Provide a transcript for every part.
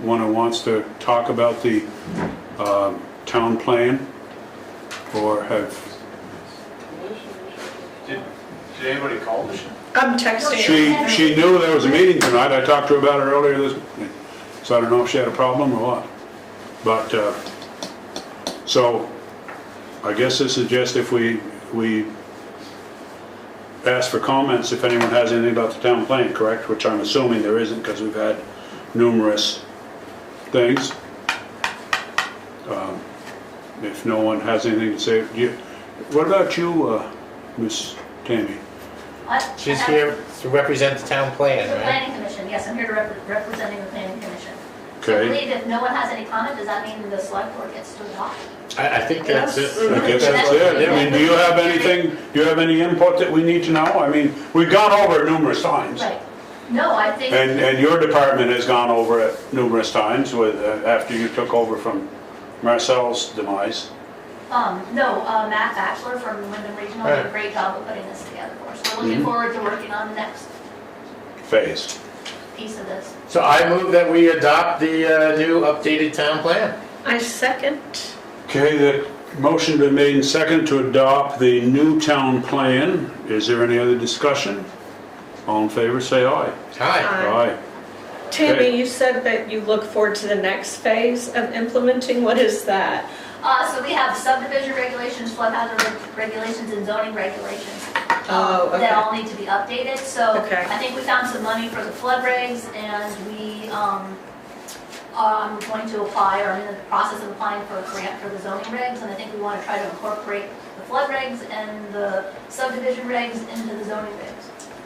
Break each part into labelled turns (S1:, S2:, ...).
S1: one who wants to talk about the um, town plan? Or have,
S2: Did, did anybody call this?
S3: I'm texting.
S1: she, she knew there was a meeting tonight, I talked to her about it earlier this, morning. so I don't know if she had a problem or what. But, uh, so, I guess this is just if we, we ask for comments if anyone has anything about the town plan, correct? Which I'm assuming there isn't, because we've had numerous things. Um, If no one has anything to say, do you, what about you, uh, Miss Tammy?
S4: What?
S5: She's here to represent the town
S4: The
S5: plan, right?
S4: planning commission, yes, I'm here to rep- representing the planning commission. So I
S1: Okay,
S4: believe if no one has any comment, does that mean the select board gets to talk?
S5: I, I think that's it.
S1: I guess that's it. I mean, do you have anything, do you have any input that we need to know? I mean, we've gone over it numerous times.
S4: Right. No, I think,
S1: And, and your department has gone over it numerous times with, uh, after you took over from Marcel's demise.
S4: um, no, uh, Matt Batchelor from Wyndham Regional did a
S5: Right.
S4: great job of putting this together for us. We're looking forward to working on the next
S1: phase.
S4: piece of this.
S5: So I move that we adopt the uh, new updated town plan.
S3: I second.
S1: Okay, the motion been made and second to adopt the new town plan. Is there any other discussion? All in favor, say aye.
S5: Hi.
S3: Aye.
S1: Aye.
S3: Uh, Tammy, you said that you look forward to the next phase of implementing. What is that?
S4: Uh, so we have subdivision regulations, flood hazard reg- regulations, and zoning regulations.
S3: Oh,
S4: um,
S3: okay.
S4: That all need to be updated, so
S3: Okay.
S4: I think we found some money for the flood regs, and we, um, are going to apply, or in the process of applying for a grant for the zoning regs, and I think we wanna try to incorporate the flood regs and the subdivision regs into the zoning regs.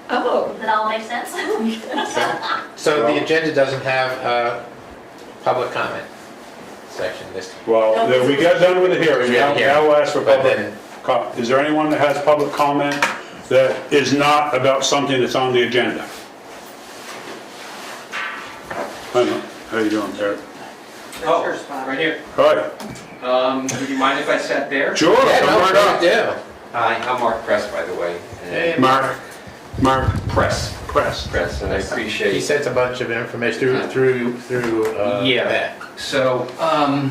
S3: Oh,
S4: Does that all make sense?
S5: So the agenda doesn't have a public comment section this.
S1: Well, then we got done with the hearing. Now now we'll ask for
S5: But
S1: public
S5: then-
S1: com- Is there anyone that has public comment that is not about something that's on the agenda? Hi, Mike. how you doing, Derek?
S6: Oh, right here.
S1: Hi.
S6: Um, would you mind if I sat there?
S1: Sure,
S5: Yeah,
S1: come
S5: no,
S1: right up.
S5: yeah.
S6: Hi, I'm Mark Press, by the way.
S5: Hey,
S1: Mark, Mark
S6: Press.
S1: Press.
S6: Press, and I
S5: He
S6: appreciate.
S5: sent a bunch of information through, through, through uh,
S6: Yeah.
S5: Matt.
S6: So, um,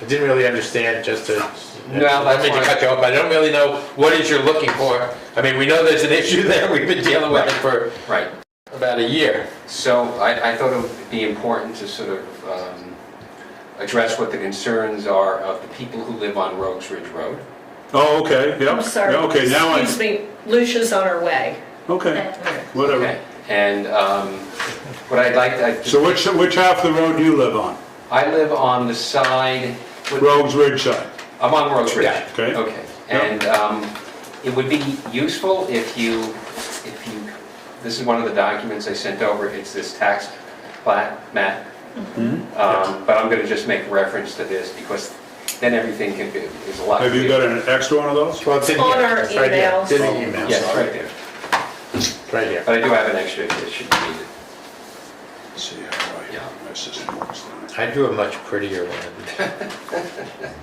S5: I didn't really understand, just to,
S6: No,
S5: I mean to
S6: that's
S5: cut you off, but I don't really know what is you're looking for. I mean, we know there's an issue there, we've been dealing with it for
S6: right.
S5: about a year.
S6: So I, I thought it would be important to sort of um, address what the concerns are of the people who live on Rogues Ridge Road.
S1: Oh, okay, yep.
S3: I'm sorry.
S1: Yeah, Okay, now I,
S3: Excuse me, Lucia's on her way.
S1: okay, whatever.
S6: And um, what I'd like,
S1: So
S6: to-
S1: which, which half of the road do you live on?
S6: I live on the side,
S1: Rogues Ridge side?
S6: I'm on Rogues Ridge.
S5: Yeah,
S1: okay.
S6: Okay,
S1: Yeah.
S6: and um, it would be useful if you, if you, this is one of the documents I sent over, it's this tax plat, map.
S1: Mm-hmm.
S6: Um, But I'm going to just make reference to this because then everything can be, is a lot.
S1: Have you
S6: clearer.
S1: got an extra one of those?
S5: Well, it's in here.
S3: On our
S5: It's right here. It's in the
S3: emails.
S5: email,
S6: Yes, right there.
S5: right here.
S6: But I do have an extra if it should be needed.
S1: Let's See how I,
S6: Yeah.
S1: my system works tonight.
S5: I drew a much prettier one.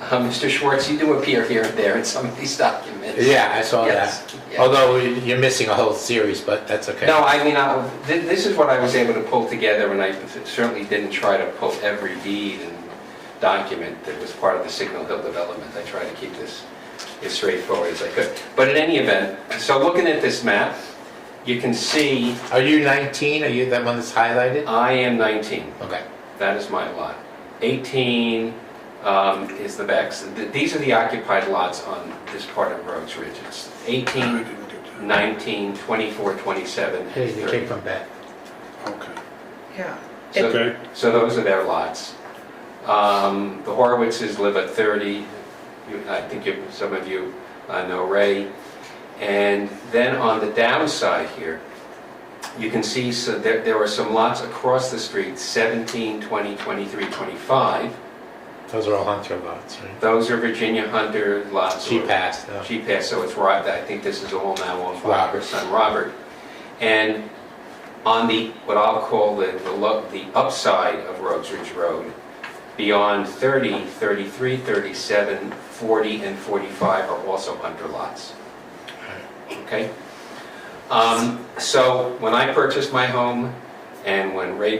S6: Uh, Mr. Schwartz, you do appear here and there in some of these documents.
S5: Yeah, I saw
S6: Yes,
S5: that.
S6: yeah.
S5: Although you're missing a whole series, but that's okay.
S6: No, I mean, I- thi- this is what I was able to pull together, and I certainly didn't try to pull every deed and document that was part of the Signal Hill development. I tried to keep this as straightforward as I could. But in any event, so looking at this map, you can see
S5: Are you 19? Are you that one that's highlighted?
S6: I am 19.
S5: Okay.
S6: That is my lot. 18 um, is the backs. Th- These are the occupied lots on this part of Rogues Ridge. It's 18, 19, 24, 27,
S5: Hey, you came
S6: 30.
S5: from back.
S1: Okay.
S3: Yeah.
S6: So-
S1: Okay.
S6: So those are their lots. Um, The Horowitzes live at 30, You- I think you- some of you uh, know Ray. And then on the downside here, you can see, so there there are some lots across the street, 17, 20, 23, 25.
S5: Those are all Hunter lots, right?
S6: Those are Virginia Hunter lots.
S5: She
S6: or-
S5: passed. uh,
S6: She passed, so it's Robert, I think this is all now on by her
S5: Robert.
S6: son Robert. And on the, what I'll call the, the lo- the upside of Rogues Ridge Road, beyond 30, 33, 37, 40, and 45 are also under lots. Okay? Um, So when I purchased my home and when Ray